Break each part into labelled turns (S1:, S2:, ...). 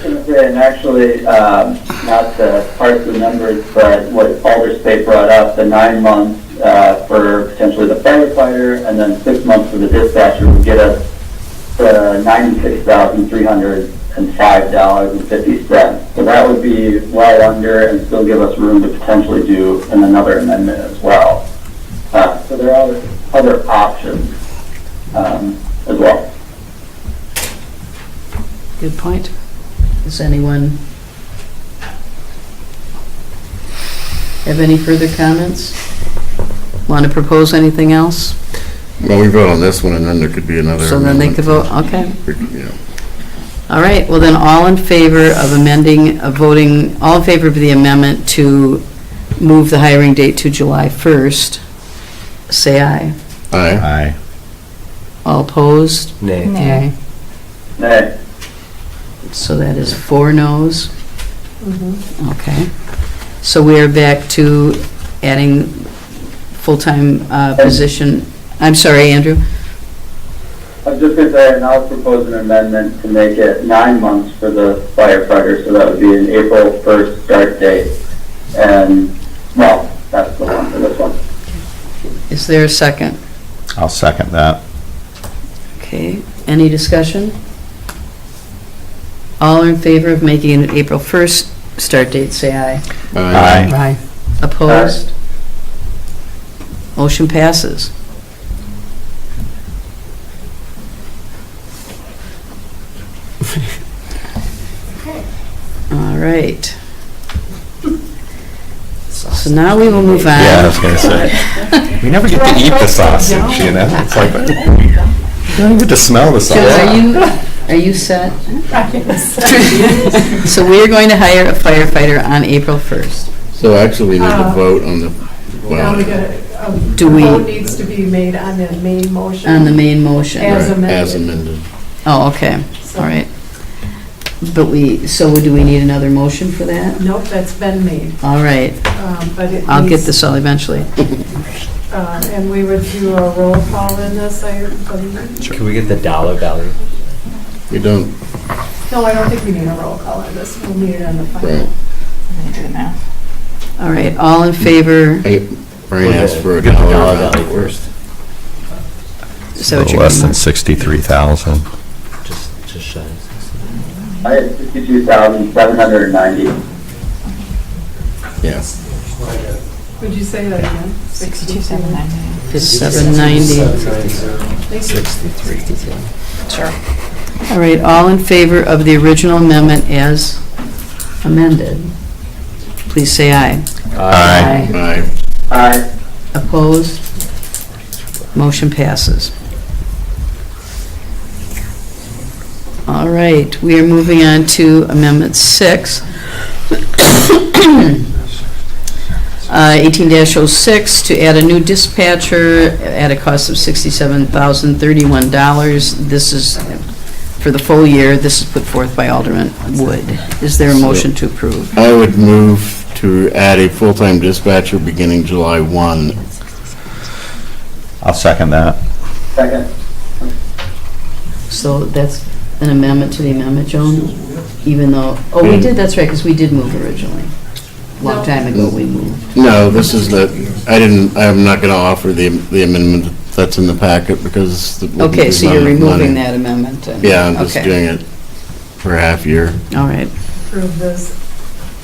S1: and actually, um, not to parse the numbers, but what Alder State brought up, the nine months uh, for potentially the firefighter, and then six months for the dispatcher would get us the ninety-six thousand three hundred and five dollars and fifty cents. So that would be well under and still give us room to potentially do in another amendment as well. Uh, So there are other options um, as well.
S2: Good point. Does anyone have any further comments? Want to propose anything else?
S3: Well, we vote on this one, and then there could be another.
S2: So then they could vote,
S3: amendment.
S2: okay.
S3: Yeah.
S2: All right, well then, all in favor of amending, of voting, all in favor of the amendment to move the hiring date to July 1st, say aye.
S3: Aye.
S4: Aye.
S2: All opposed?
S4: Nay.
S5: Nay.
S1: Nay.
S2: So that is four noes. Okay. So we are back to adding full-time uh, position. I'm sorry, Andrew.
S1: I'm just going to say, and I'll propose an amendment to make it nine months for the firefighter, so that would be an April 1st start date. And, well, that's the one for this one.
S2: Is there a second?
S4: I'll second that.
S2: Okay, any discussion? All in favor of making an April 1st start date, say aye.
S4: Aye.
S2: Aye. Opposed? Motion passes. All right. So now we will move on.
S4: Yeah, I was gonna say. We never get to eat the sausage, you know? It's like, you don't even get to smell the
S2: Joe, are
S4: sausage.
S2: you, are you set? So we are going to hire a firefighter on April 1st.
S3: So actually, we need to
S6: Uh,
S3: vote on the,
S6: Now
S3: well,
S6: we gotta, a
S2: Do we-
S6: vote needs to be made on the main motion.
S2: On the main motion.
S6: As
S3: right,
S6: amended.
S3: as amended.
S2: Oh, okay, all right. But we, so do we need another motion for that?
S6: Nope, that's been made,
S2: All right,
S6: um, but it
S2: I'll get
S6: needs-
S2: this all eventually.
S6: uh, And we would do a roll call in this, I believe.
S7: Can we get the dollar value?
S3: We don't,
S6: No, I don't think we need a roll call on this, we'll need it on the
S3: right.
S6: final.
S2: All right, all in favor,
S3: Hey, Brian asked for a
S7: Get the
S3: dollar value
S7: value
S3: first.
S2: is that what you're
S4: Less
S2: going
S4: than
S2: with?
S4: 63,000.
S7: Just, just shy. of 60.
S1: Uh, I had 62,790.
S3: Yes.
S6: Would you say that again?
S5: 6279.
S2: It's 790.
S6: Thank you.
S5: Sure.
S2: All right, all in favor of the original amendment as amended? Please say aye.
S4: Aye.
S3: Aye.
S1: Aye.
S2: Opposed? Motion passes. All right, we are moving on to Amendment 6. Uh, 18-06, to add a new dispatcher at a cost of $67,031. This is for the full year. This is put forth by Alderman Wood. Is there a motion to approve?
S3: I would move to add a full-time dispatcher beginning July 1.
S4: I'll second that.
S1: Second.
S2: So that's an amendment to the amendment, Joan? Even though, oh, we did, that's right, because we did move originally. Long time ago, we moved.
S3: No, this is the, I didn't, I'm not going to offer the the amendment that's in the packet because. the-
S2: Okay,
S3: there's
S2: so
S3: not
S2: you're
S3: enough money.
S2: removing that amendment? and-
S3: Yeah, I'm just
S2: okay.
S3: doing it for a half year.
S2: All right,
S6: Approve this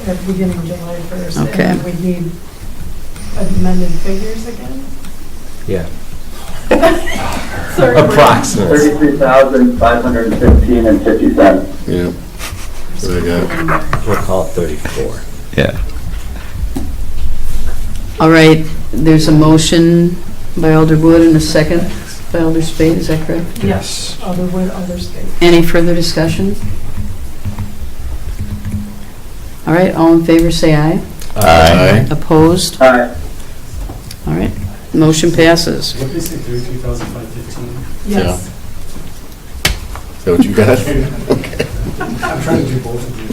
S6: at the beginning of July 1st. and
S2: Okay.
S6: then we need amended figures again?
S7: Yeah.
S6: Sorry.
S7: Approximately.
S1: 33,515 and 50 cents.
S3: Yeah. So I got,
S7: We'll call it 34.
S4: Yeah.
S2: all right, there's a motion by Alder Wood and a second by Alder Spade, is that correct?
S6: Yes, other would, other state.
S2: Any further discussion? All right, all in favor, say aye.
S4: Aye.
S2: Opposed?
S1: Aye.
S2: All right, motion passes.
S8: What is it, thirty-three thousand five fifteen?
S6: Yes.
S3: is that what you got?
S8: I'm trying to do both of you.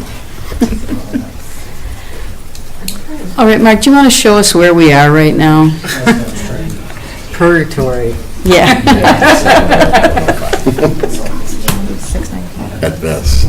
S2: All right, Mark, do you want to show us where we are right now?
S5: Purgatory.
S2: Yeah.
S3: At best.